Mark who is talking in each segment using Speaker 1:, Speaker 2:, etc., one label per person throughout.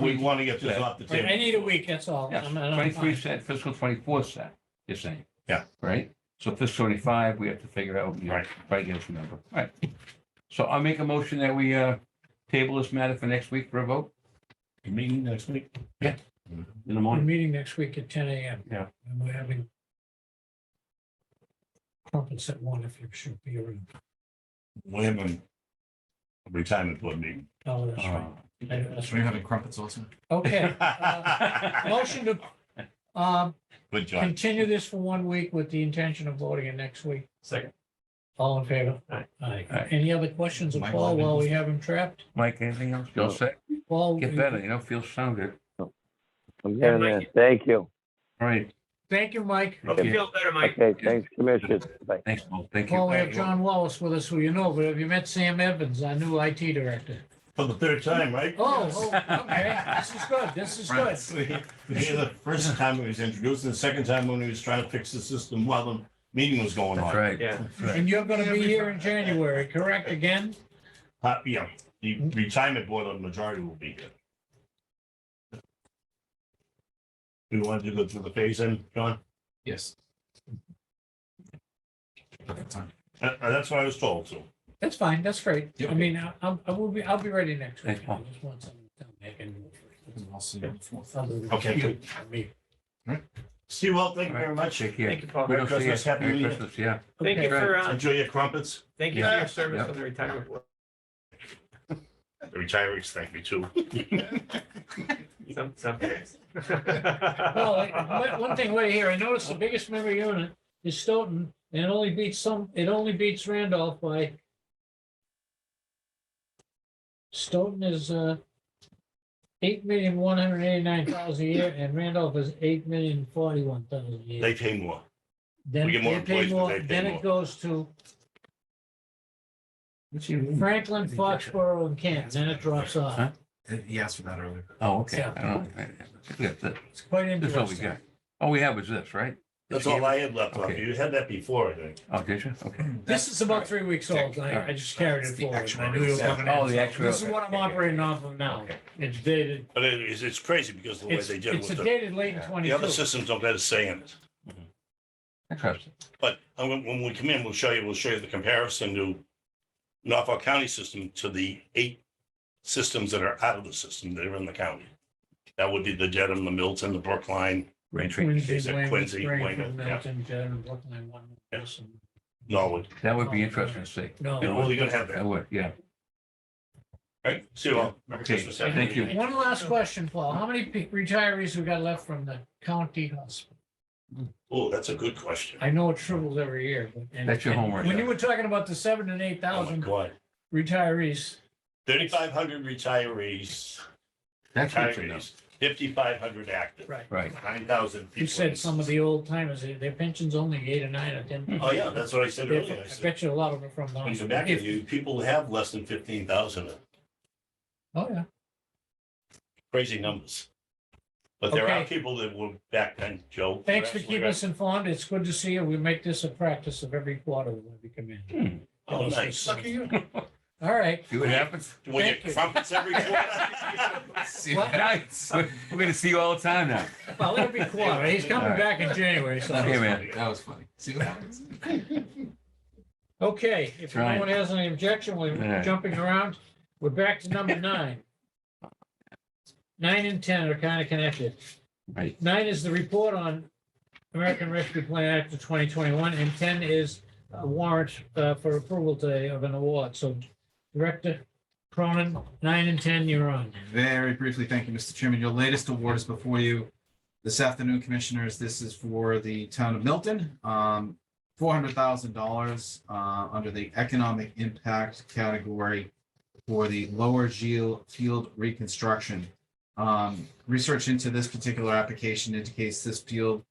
Speaker 1: We want to get this
Speaker 2: Yeah.
Speaker 1: off the
Speaker 3: Right, I
Speaker 1: table.
Speaker 3: need a week, that's all.
Speaker 2: Yes,
Speaker 3: I'm- I'm fine.
Speaker 2: twenty-three set, fiscal twenty-four set, you're saying.
Speaker 1: Yeah.
Speaker 2: Right? So fiscal twenty-five, we have to figure out, you know,
Speaker 1: Right.
Speaker 2: try to get us a number. All right. So I'll make a motion that we, uh, table this matter for next week for a vote
Speaker 1: Meeting next week.
Speaker 2: in the
Speaker 3: We're
Speaker 2: morning.
Speaker 3: meeting next week at ten AM.
Speaker 2: Yeah.
Speaker 3: And we're having crumpets at one if you should be around.
Speaker 1: We're having a retirement board meeting.
Speaker 3: Oh, that's right.
Speaker 2: Uh,
Speaker 3: I know that's
Speaker 4: So you're
Speaker 3: right.
Speaker 4: having crumpets also?
Speaker 3: Okay. uh, Motion to, um,
Speaker 1: Good job.
Speaker 3: continue this for one week with the intention of voting it next week.
Speaker 4: Second.
Speaker 3: All in favor?
Speaker 4: Aye.
Speaker 3: Aye.
Speaker 2: Aye.
Speaker 3: Any other questions of
Speaker 4: Michael,
Speaker 3: Paul
Speaker 4: I've been-
Speaker 3: while we have him trapped?
Speaker 2: Mike, anything else? Feel set?
Speaker 3: Paul,
Speaker 2: Get better, you know, feel sound good.
Speaker 5: I'm
Speaker 3: Yeah,
Speaker 5: getting there. Thank you.
Speaker 2: All right.
Speaker 3: thank you, Mike.
Speaker 2: Okay.
Speaker 5: Okay, thanks, Commissioners. Bye.
Speaker 2: Thanks, Paul. Thank you.
Speaker 3: Paul, we have John Wallace with us, who you know, but have you met Sam Evans, our new IT director?
Speaker 1: For the third time, right?
Speaker 3: Oh, oh, okay, this is good, this is good.
Speaker 1: Friends. Yeah, The first time he was introduced, and the second time when he was trying to fix the system while the meeting was going
Speaker 2: That's
Speaker 1: on.
Speaker 2: right.
Speaker 4: Yeah.
Speaker 3: And you're gonna be here in January, correct, again?
Speaker 1: Uh, Yeah, the retirement board, the majority will be here. We wanted to go through the phase in, John?
Speaker 4: Yes. Perfect time.
Speaker 1: Uh, uh, That's what I was told, so.
Speaker 3: That's fine, that's great.
Speaker 4: Yeah.
Speaker 3: I mean, I, I'm- I will be, I'll be ready next week.
Speaker 2: Thanks,
Speaker 3: I
Speaker 2: Paul.
Speaker 3: just want something to make it-
Speaker 4: I'll see you on the fourth.
Speaker 1: Okay, good. Steve, well, thank you very much.
Speaker 2: Take care.
Speaker 6: Thank you, Paul.
Speaker 2: We
Speaker 1: Merry
Speaker 2: don't see
Speaker 1: Christmas,
Speaker 2: you.
Speaker 1: Happy
Speaker 2: Merry
Speaker 1: New Year.
Speaker 2: Christmas, yeah.
Speaker 6: Thank you
Speaker 3: Okay.
Speaker 6: for, uh,
Speaker 1: Enjoy your crumpets.
Speaker 6: thank you for your service on the retirement board.
Speaker 1: The retirees thank you too.
Speaker 6: Some, some days.
Speaker 3: Well, like, one- one thing right here, I noticed the biggest member unit is Stoughton, and it only beats some, it only beats Randolph by Stoughton is, uh, eight million, one hundred eighty-nine thousand a year, and Randolph is eight million, forty-one thousand a year.
Speaker 1: They pay more.
Speaker 3: Then
Speaker 1: we get more
Speaker 3: they pay
Speaker 1: employees, but
Speaker 3: more,
Speaker 1: they pay
Speaker 3: then
Speaker 1: more.
Speaker 3: it goes to Franklin, Foxborough, and Kent, then it drops
Speaker 2: Huh?
Speaker 3: off.
Speaker 4: He asked for that earlier.
Speaker 2: Oh, okay.
Speaker 3: Yeah.
Speaker 2: I don't know. Yeah, that's it.
Speaker 3: It's quite
Speaker 2: This is all we
Speaker 3: interesting.
Speaker 2: got. All we have is this, right?
Speaker 1: That's all I had left off.
Speaker 2: Okay.
Speaker 1: You had that before, I think.
Speaker 2: Oh, did you? Okay.
Speaker 3: This is about three weeks old.
Speaker 2: All
Speaker 3: I,
Speaker 2: right.
Speaker 3: I just carried
Speaker 4: That's
Speaker 3: it
Speaker 4: the
Speaker 3: forward.
Speaker 4: actual
Speaker 3: I knew it was
Speaker 4: result.
Speaker 3: coming
Speaker 2: Oh,
Speaker 3: in.
Speaker 2: the actual-
Speaker 3: This is what I'm
Speaker 2: okay, okay,
Speaker 3: operating off of now.
Speaker 2: Okay.
Speaker 3: It's dated,
Speaker 1: But it is, it's crazy because the way
Speaker 3: it's,
Speaker 1: they did it
Speaker 3: it's
Speaker 1: with the,
Speaker 3: dated late in
Speaker 1: the other
Speaker 3: twenty-two.
Speaker 1: systems don't let us say in it.
Speaker 2: Interesting.
Speaker 1: But uh, when, when we come in, we'll show you, we'll show you the comparison to Norfolk County system to the eight systems that are out of the system that are in the county. That would be the Dedham, the Milton, the Brookline,
Speaker 2: Rain tree.
Speaker 3: Quincy,
Speaker 1: Is it
Speaker 3: Wayne,
Speaker 1: Quincy,
Speaker 3: Springfield,
Speaker 1: Wayne, yeah.
Speaker 3: Milton, Dedham, Brookline, one.
Speaker 1: Yeah.
Speaker 3: Wilson.
Speaker 1: Norwood.
Speaker 2: That would be interesting to see.
Speaker 3: No.
Speaker 1: You're only gonna have
Speaker 2: That
Speaker 1: that,
Speaker 2: would, yeah.
Speaker 1: right? See you all. Merry
Speaker 2: Okay,
Speaker 1: Christmas, Happy
Speaker 2: thank
Speaker 1: New Year.
Speaker 2: you.
Speaker 3: One last question, Paul. How many pe- retirees we got left from the county hospital?
Speaker 1: Oh, that's a good question.
Speaker 3: I know it triples every year, but. and-
Speaker 2: That's your
Speaker 3: and
Speaker 2: homework.
Speaker 3: When you were talking about the seven and eight
Speaker 1: Oh, my
Speaker 3: thousand
Speaker 1: God.
Speaker 3: retirees,
Speaker 1: Thirty-five hundred retirees,
Speaker 2: That's good to know.
Speaker 1: retirees, fifty-five hundred active,
Speaker 3: right,
Speaker 2: Right.
Speaker 1: nine thousand people.
Speaker 3: you said some of the old timers, their their pension's only eight or nine or ten.
Speaker 1: Oh, yeah, that's what I said
Speaker 3: Yeah,
Speaker 1: earlier. I
Speaker 3: I
Speaker 1: said,
Speaker 3: bet you a lot of it from.
Speaker 1: When you
Speaker 3: Boston.
Speaker 1: come back,
Speaker 3: If-
Speaker 1: you, people have less than fifteen thousand.
Speaker 3: Oh, yeah.
Speaker 1: crazy numbers. But there are
Speaker 3: Okay.
Speaker 1: people that were back then, Joe.
Speaker 3: Thanks for
Speaker 1: You're
Speaker 3: keeping us informed. It's good to see you. We make this a practice of every quarter when we come in.
Speaker 2: Hmm.
Speaker 1: absolutely right. Oh, nice.
Speaker 3: Lucky you. All right.
Speaker 2: See what happens?
Speaker 1: When
Speaker 3: Thank
Speaker 1: you
Speaker 3: you.
Speaker 1: crumpets every quarter.
Speaker 4: See you
Speaker 3: What?
Speaker 2: Nice. We're we're gonna see you all the time now.
Speaker 3: Well, it'll be quarter. He's
Speaker 2: All
Speaker 3: coming
Speaker 2: right.
Speaker 3: back in January, so.
Speaker 4: That was
Speaker 2: Okay, man.
Speaker 4: funny. That was funny. See what happens?
Speaker 3: Okay, if no
Speaker 2: Trying.
Speaker 3: one has any objection,
Speaker 2: All
Speaker 3: we're
Speaker 2: right.
Speaker 3: jumping around. We're back to number nine. Nine and ten are kind of connected.
Speaker 2: Right.
Speaker 3: Nine is the report on American Rescue Plan Act of twenty twenty-one, and ten is a warrant uh, for approval today of an award. So Director Cronin, nine and ten, you're on.
Speaker 4: Very briefly, thank you, Mr. Chairman. Your latest award is before you this afternoon, Commissioners. This is for the town of Milton. Um, four hundred thousand dollars, uh, under the economic impact category for the lower Gil field reconstruction. Um, research into this particular application indicates this field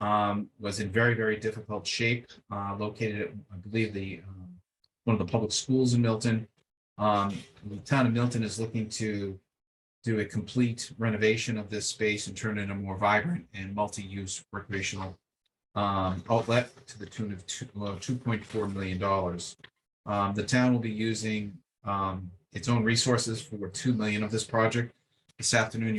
Speaker 4: um, was in very, very difficult shape, uh, located at, I believe, the, um, one of the public schools in Milton. Um, the town of Milton is looking to do a complete renovation of this space and turn it into a more vibrant and multi-use recreational um, outlet to the tune of two, well, two point four million dollars. Um, the town will be using um, its own resources for two million of this project. This afternoon,